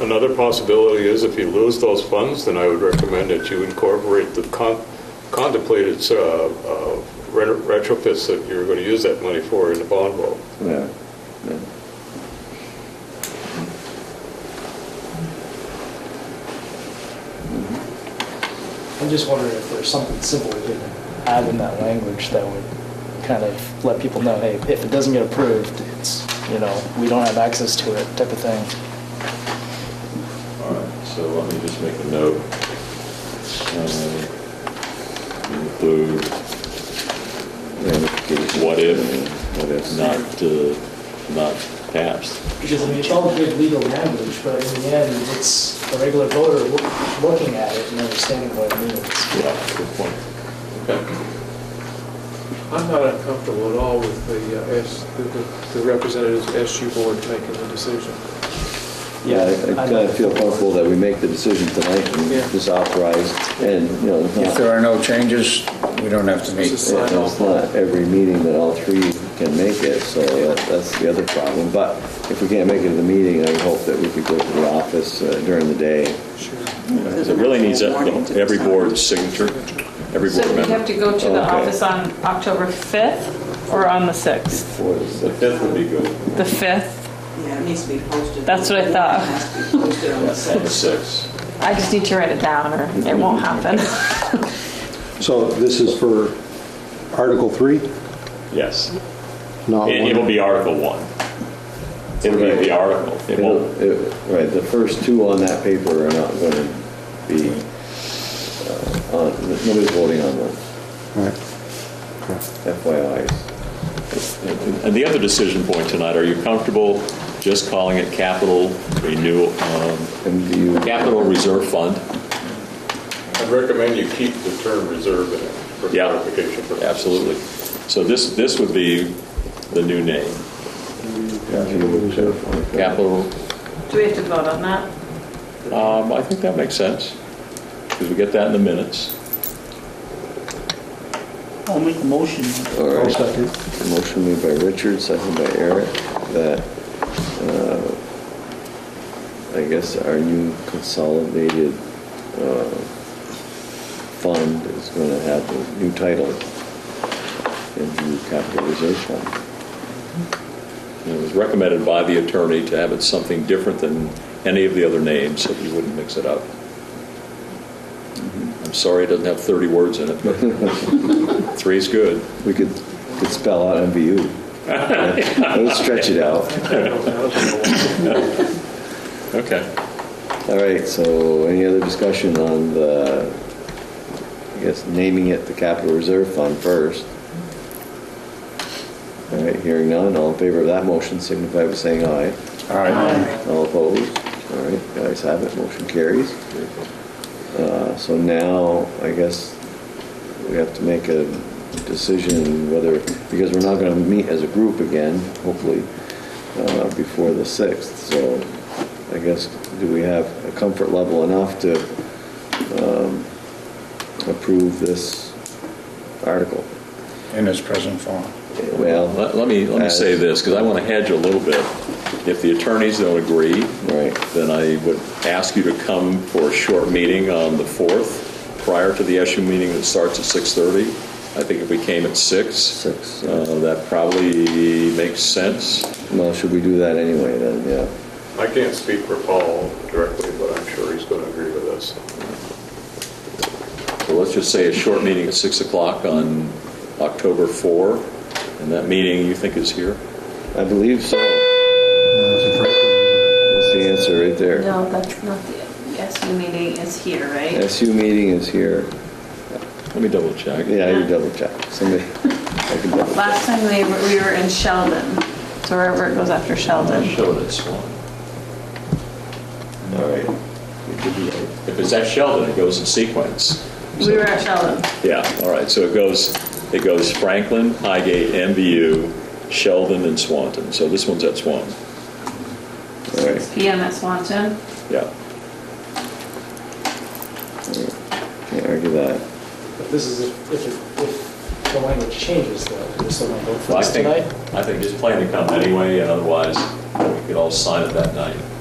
Another possibility is if you lose those funds, then I would recommend that you incorporate the con- contemplated uh, uh, ret- retrofits that you're going to use that money for in the bond vote. Yeah. yeah. I'm just wondering if there's something simple we could add in that language that would kind of let people know, hey, if it doesn't get approved, it's, you know, we don't have access to it, type of thing. All right, so let me just make a note. Uh, Um, Include what if, what if not, uh, not passed. Because I mean, it's all good legal language, but in the end, it's a regular voter loo- looking at it and understanding what it means. Yeah, good point. I'm not uncomfortable at all with the, uh, S- the- the- the representatives of SU board making the decision. Yeah, I kind of feel comfortable that we make the decision tonight and Yeah. just authorize, and, you know, it's If not- there are no changes, we don't have to meet. Just sign it's off. not every meeting that all three can make it, so that- that's the other problem. But if we can't make it to the meeting, I would hope that we could go to the office uh, during the day. It really needs a- every board's signature, every So board we have member. to go to the Okay. office on October 5th or on the 6th? for the- The fifth would be good, The 5th? Yeah, it needs to be posted. That's what I thought. It has to be posted on the site. the sixth. I just need to write it down or it won't happen. So this is for Article 3? Yes. Uh, No. It- It'll be Article 1. It'll be the article. It It'll- won't, it- Right, the first two on that paper are not going to be, uh, on- nobody's voting on them, FYI. And the other decision point tonight, are you comfortable just calling it capital renewal, um, And do you? capital reserve fund? I'd recommend you keep the term reserve in it for Yeah. clarification purposes. Absolutely. So this, this would be the new name, capital, Do we have to vote on that? um, I think that makes sense, because we get that in the minutes. I'll make a motion. All I'll right. second. Motion made by Richard, second by Eric, that, uh, I guess our new consolidated uh, fund is going to have a new title, the new capital reserve fund. And It was recommended by the attorney to have it something different than any of the other names, so you wouldn't mix it up. I'm sorry it doesn't have 30 words in it, but three's good. We could, could spell out MVU. Let's stretch it out. Okay. All right, so any other discussion on the, I guess, naming it the capital reserve fund first? All right, hearing none, all in favor of that motion signify by saying aye. All right. All opposed? All right, the ayes have it, motion carries. Uh, So now, I guess, we have to make a decision whether, because we're not going to meet as a group again, hopefully, uh, before the 6th. So I guess, do we have a comfort level enough to um, approve this article? In its present form. Well, Let let me, let me say this, because I want to hedge a little bit. If the attorneys don't agree, right, then I would ask you to come for a short meeting on the 4th, prior to the SU meeting that starts at 6:30. I think if we came at 6, six. uh, that probably makes sense. Well, should we do that anyway, then, yeah? I can't speak for Paul directly, but I'm sure he's going to agree with us. So let's just say a short meeting at 6 o'clock on October 4, and that meeting you think is here? I believe so. That's the answer right there. No, that's not the SU meeting is here, right? SU meeting is here. Let me double check. Yeah, you double check. Somebody, I can double check. Last time we were, we were in Sheldon, so wherever it goes after I Sheldon. showed it, Swan. All right. You could be right. If it's at Sheldon, it goes in sequence. We were at Sheldon. Yeah, all right, so it goes, it goes Franklin, Highgate, MVU, Sheldon, and Swanton. So this one's at Swan, All right. PM at Swanton. yeah. Can't argue that. But this is if, if, it- if the language changes though, we're still gonna vote for Well, I this think, tonight. I think just plan to come anyway, and otherwise, we could all sign it that night.